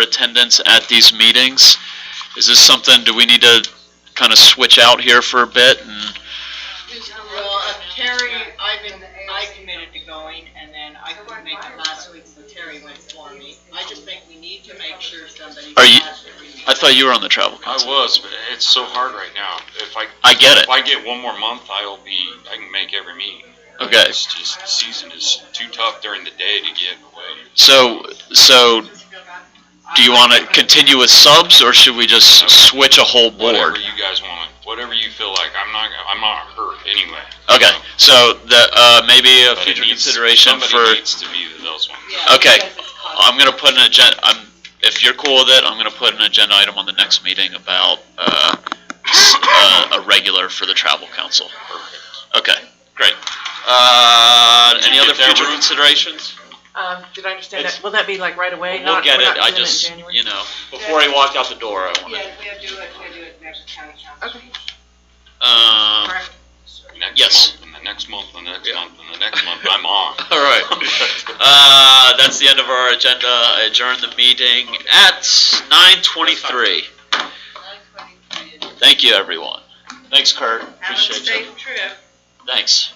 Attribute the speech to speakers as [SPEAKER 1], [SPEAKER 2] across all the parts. [SPEAKER 1] attendance at these meetings. Is this something, do we need to kind of switch out here for a bit and,
[SPEAKER 2] Just, well, uh, Terry, I've been, I committed to going, and then I couldn't make it last week, so Terry went for me. I just think we need to make sure somebody.
[SPEAKER 1] Are you- uh,
[SPEAKER 2] has every meeting.
[SPEAKER 1] I thought you were on the travel
[SPEAKER 3] I
[SPEAKER 1] council.
[SPEAKER 3] was, but it's so hard right now. If I,
[SPEAKER 1] I get it.
[SPEAKER 3] if I get one more month, I'll be, I can make every meeting.
[SPEAKER 1] Okay,
[SPEAKER 3] It's just, the season is too tough during the day to get away.
[SPEAKER 1] so, so do you want to continue with subs or should we just switch a whole
[SPEAKER 3] Whatever
[SPEAKER 1] board?
[SPEAKER 3] you guys want, whatever you feel like. I'm not, I'm not hurt anyway.
[SPEAKER 1] Okay, so the, uh, maybe a
[SPEAKER 3] But it
[SPEAKER 1] future
[SPEAKER 3] needs-
[SPEAKER 1] consideration for.
[SPEAKER 3] Somebody needs to be those ones.
[SPEAKER 2] Yeah,
[SPEAKER 1] okay.
[SPEAKER 2] because it's cost-
[SPEAKER 1] I'm gonna put an agenda, I'm, if you're cool with it, I'm gonna put an agenda item on the next meeting about, uh, s- uh, a regular for the travel council.
[SPEAKER 3] Perfect.
[SPEAKER 1] Okay, great. Uh, any
[SPEAKER 3] Did you
[SPEAKER 1] other
[SPEAKER 3] get that,
[SPEAKER 1] future
[SPEAKER 3] Ruth?
[SPEAKER 1] considerations?
[SPEAKER 4] Um, did I understand
[SPEAKER 1] It's-
[SPEAKER 4] that? Will that be like right away?
[SPEAKER 1] We'll
[SPEAKER 4] Not-
[SPEAKER 1] get
[SPEAKER 4] we're
[SPEAKER 1] it,
[SPEAKER 4] not
[SPEAKER 1] I
[SPEAKER 4] doing in
[SPEAKER 1] just,
[SPEAKER 4] January?
[SPEAKER 1] you know, before he walked out the door, I wanted,
[SPEAKER 2] Yeah, we have to do it, we have to do it next county council.
[SPEAKER 4] Okay.
[SPEAKER 1] um,
[SPEAKER 4] Alright.
[SPEAKER 3] Next
[SPEAKER 1] Yes.
[SPEAKER 3] month, and the next month, and the next
[SPEAKER 1] Yeah.
[SPEAKER 3] month, and the next month, I'm on.
[SPEAKER 1] all right. Uh, that's the end of our agenda. I adjourn the meeting at nine twenty-three. Thank you, everyone. Thanks, Kurt.
[SPEAKER 2] Have a
[SPEAKER 1] Appreciate you.
[SPEAKER 2] safe trip.
[SPEAKER 1] Thanks.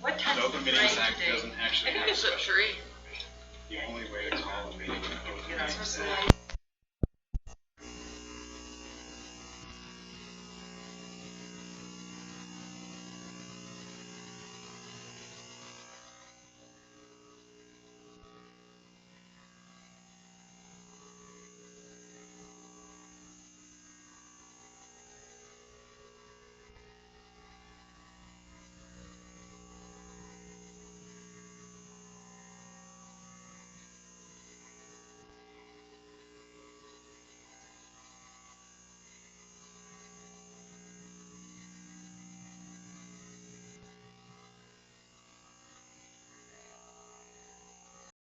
[SPEAKER 2] What time is
[SPEAKER 5] um, The
[SPEAKER 2] the
[SPEAKER 5] Open Meetings
[SPEAKER 2] parade
[SPEAKER 5] Act
[SPEAKER 2] today?
[SPEAKER 5] doesn't actually have a special. The only way to call a meeting. an open meeting is if